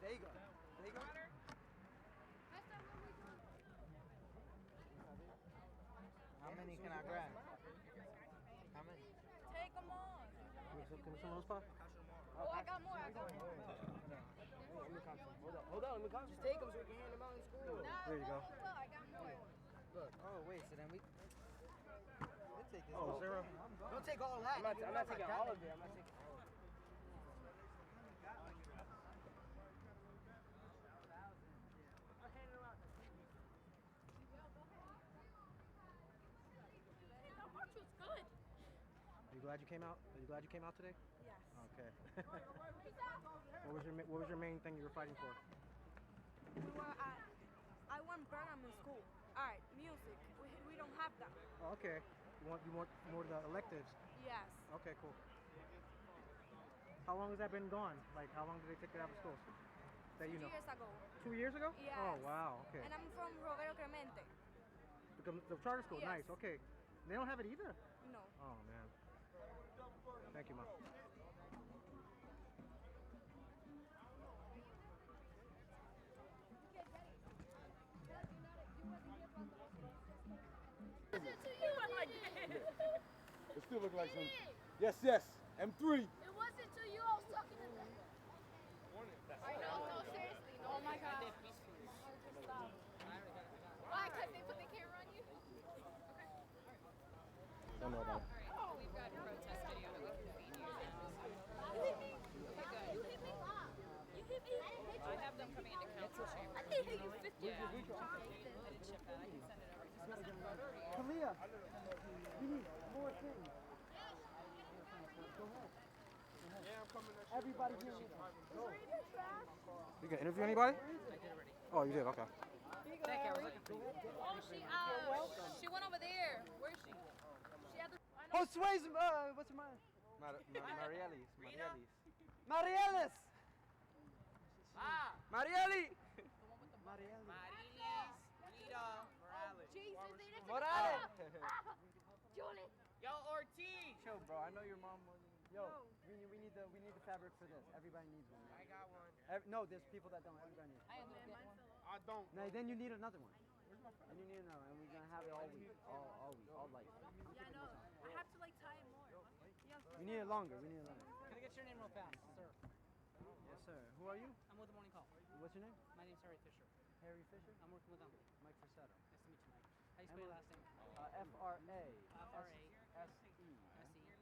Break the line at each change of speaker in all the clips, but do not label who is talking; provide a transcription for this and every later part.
They go. They go. How many can I grab? How many?
Take them on.
Can we- Can we someone else pop?
Oh, I got more. I got more.
Hold on, hold on, let me count. Just take them so we can hand them out in school.
Nah,
There you go.
well, I got more.
Look. Oh wait, so then we. We'll take this.
Oh,
whole
zero.
thing. Don't take all that.
I'm not- I'm not taking all of
it. I'm not taking. all of it.
The march was good.
Are you glad you came out? Are you glad you came out today?
Yes.
Okay. what was your ma- What was your main thing you were fighting for?
We were at, I won program in school. All right, music. We, we don't have that.
Oh, okay. You want you want more of the electives?
Yes.
Okay, cool. How long has that been gone? Like, how long did they take it out of school? That you
Two
know.
years ago.
Two years ago?
Yes.
Oh wow. Okay.
And I'm from Roberto Clemente.
Become the charter school.
Yes.
Nice. Okay. They don't have it either.
No.
Oh man. Thank you, mom.
It wasn't to you.
It still look like some. Yes, yes. M3.
It wasn't to you. I was talking to them. I know. No, seriously. No, oh my god. Why? Because they put the camera on you.
Don't know about
We've got a protest video that we can feed you.
You hit me. You hit me. I didn't hit
I have them coming into council chamber.
I didn't hit you. Fifty.
Yeah. I didn't ship that. I can send it over. Just must send it over to you.
Kalia, we need more things. Everybody here.
You gonna interview anybody? Oh, you did. Okay.
Oh, she. Uh, she went over there. Where is she? She had the. I know.
Josue's, uh, what's her name?
Mar- Mar- Marielis.
Marielis.
Marielis.
Marieli.
Marilis, Rita, Morales.
Jesus, they didn't.
Morales.
Julie.
Yo, Ortiz!
Yo, bro, I know your mom was. Yo, we need, we need the we need the fabric for this. Everybody needs one.
I got one.
Ev- no, there's people that don't. Everybody needs.
I had to get one.
I don't.
One. No, then you need another one. And you need another one, and we're gonna have it all week, all all week, all life.
Yeah, no. I have to like tie it more.
We need it longer. We need it longer.
Can I get your name real fast, sir?
Yes, sir. Who are you?
I'm with the morning call.
What's your name?
My name's Harry Fisher.
Harry Fisher.
I'm working with them.
Mike Frisetto.
Nice to meet you, Mike. How do you spell your last name?
Uh, F R A.
F.R.A..
S E.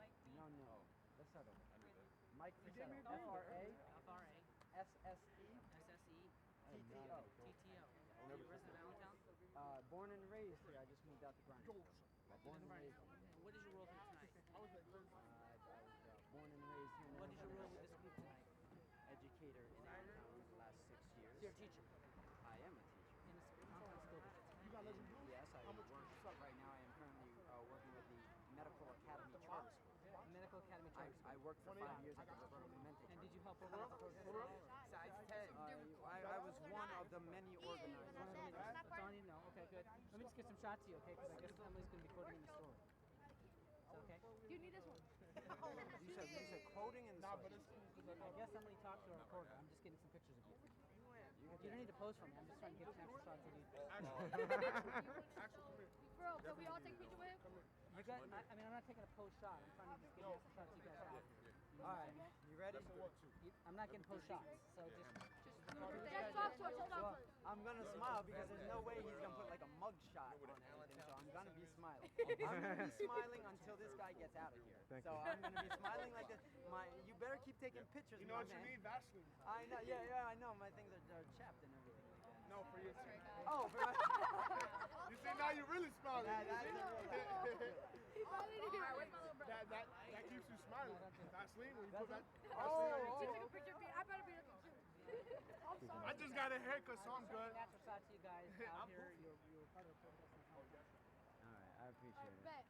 S E
No, no. Let's start over. Mike Frisetto. F R A.
F R A
S S E.
S S E
T T O.
T T O. You resident of Allentown?
Uh, born and raised here. I just moved out to Grindr. Born and raised.
What is your role here tonight?
Uh, I was uh, born and raised here. in
What is your
Illinois.
role with this group tonight?
Educator in Allentown for the last six years.
You're a teacher.
I am a teacher.
In this conference school.
And yes, I work. Right now, I am currently uh, working with the Medical Academy Charter School.
Medical Academy
I,
Charter School.
I worked for five years at the Roberto Clemente
And
Charter
did you help over at the protest?
Size 10. I, I was one of the many organizers.
That's all I need to know. Okay, good. Let me just get some shots of you, okay? Because I guess Emily's going to be quoting in the store. Is that okay?
You need this one.
You said, you said quoting in the but it's
I guess Emily talked to a reporter. I'm just getting some pictures of you. You don't need to pose for me. I'm just trying to get some extra shots of you.
Bro, can we all take pictures with him?
You guys, I, I mean, I'm not taking a pose shot. I'm trying to just get an extra shots you guys have.
All right, you ready?
You- I'm not getting pose shots, so just,
Just talk to her. Just talk
Well,
to her.
I'm gonna smile because there's no way he's gonna put like a mug shot on anything, so I'm gonna be smiling. I'm gonna be smiling until this guy gets out of here.
Thank
so uh,
you.
I'm gonna be smiling like this. My, you better keep taking pictures.
You know
my
what you
man.
mean? Vaseline.
I know. Yeah, yeah, I know. My things are, are chapped and everything like that.
No, for you.
Oh, for my,
You see, now you're really smiling.
Yeah, that's a
You see?
All right, where's my little brother?
that, that, that keeps you smiling. Vaseline, when you put that.
oh,
You took
oh.
a picture of me. I better be looking cute.
I just got a haircut, so I'm good.
natural shots of you guys out here. You're, you're part of the protest.
All right, I appreciate it.
Bet.